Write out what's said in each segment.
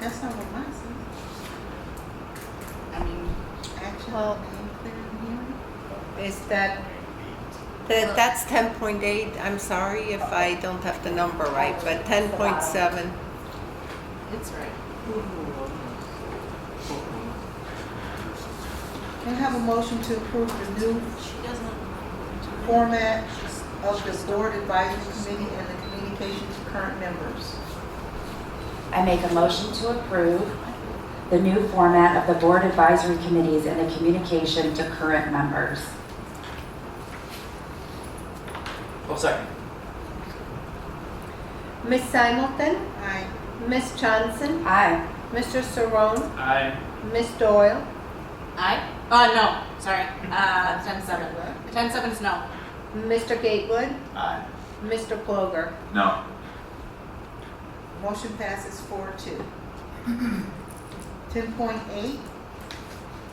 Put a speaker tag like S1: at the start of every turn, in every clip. S1: That's not what mine says. I mean, action,
S2: Well-
S1: name, clear and hearing.
S2: Is that, that, that's ten point eight, I'm sorry if I don't have the number right, but ten point seven,
S3: It's right.
S1: Can I have a motion to approve the new
S3: She doesn't.
S1: format of the board advisory committee and the communications to current members?
S4: I make a motion to approve the new format of the board advisory committees and the communication to current members.
S5: I'll second.
S6: Miss Simulton,
S1: Aye.
S6: Miss Johnson,
S4: Aye.
S6: Mr. Saron,
S5: Aye.
S6: Miss Doyle,
S3: Aye? Oh, no, sorry. Uh, ten seven. Ten seven is no.
S6: Mr. Gatewood,
S5: Aye.
S6: Mr. Ploger.
S5: No.
S1: Motion passes four two. Ten point eight,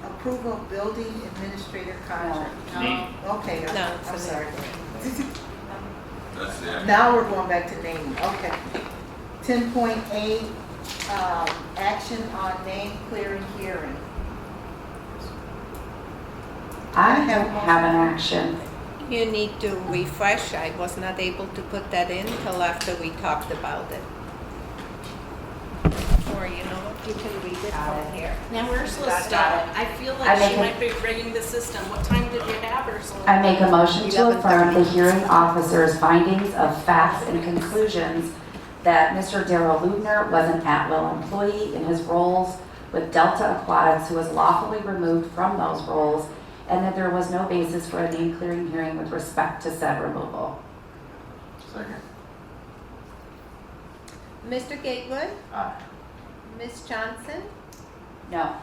S1: approval of building administrator contract.
S3: No.
S1: Okay, I'm-
S2: No, it's
S1: I'm
S2: a
S1: sorry.
S7: That's it.
S1: Now we're going back to naming, okay. Ten point eight, um, action on name clearing hearing.
S4: I don't have an action.
S2: you need to refresh, I was not able to put that in till after we talked about it. Or you know what, you can read it from here.
S3: Now, where's
S2: Got it.
S3: Lestat? I feel
S4: uh, I
S3: like
S4: make
S3: she
S4: a-
S3: might be rigging the system. What time did you have her? So-
S4: I make a motion to
S2: 11:30.
S4: affirm the hearing officer's findings of facts and conclusions that Mr. Darrell Lubner was an at-will employee in his roles with Delta Aquatics who was lawfully removed from those roles and that there was no basis for a name clearing hearing with respect to said removal.
S5: Second.
S6: Mr. Gatewood,
S5: Aye.
S6: Miss Johnson,
S4: No.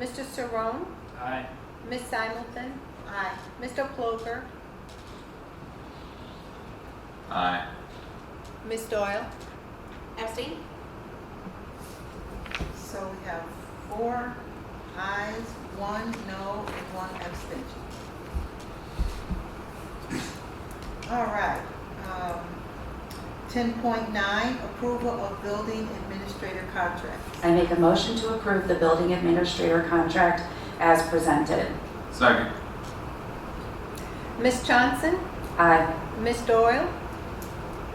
S6: Mr. Saron,
S5: Aye.
S6: Miss Simulton,
S1: Aye.
S6: Mr. Ploger,
S5: Aye.
S2: Miss Doyle?
S3: Epstein?
S1: So we have four ayes, one no, and one abstention. All right. um, Ten point nine, approval of building administrator contracts.
S4: I make a motion to approve the building administrator contract as presented.
S5: Second.
S6: Miss Johnson,
S4: Aye.
S6: Miss Doyle,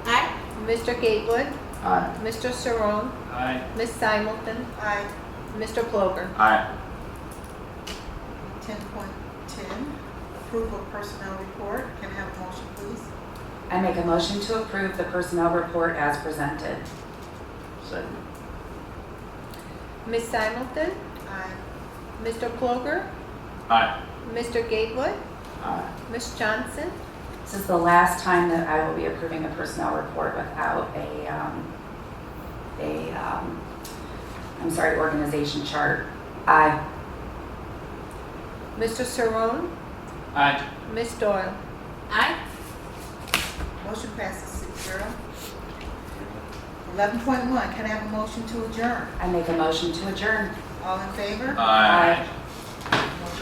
S3: Aye?
S6: Mr. Gatewood,
S5: Aye.
S6: Mr. Saron,
S5: Aye.
S6: Miss Simulton,
S1: Aye.
S6: Mr. Ploger.
S5: Aye.
S1: Ten point ten, approval of personnel report. Can I have a motion, please?
S4: I make a motion to approve the personnel report as presented.
S5: Second.
S6: Miss Simulton,
S1: Aye.
S6: Mr. Ploger,
S5: Aye.
S6: Mr. Gatewood,
S5: Aye.
S6: Miss Johnson,
S4: This is the last time that I will be approving a personnel report without a, um, a, um, I'm sorry, organization chart. Aye.
S6: Mr. Saron,
S5: Aye.
S6: Miss Doyle.
S3: Aye?
S1: Motion passes six zero. Eleven point one, can I have a motion to adjourn?
S4: I make a motion to adjourn.
S1: All in favor?
S5: Aye.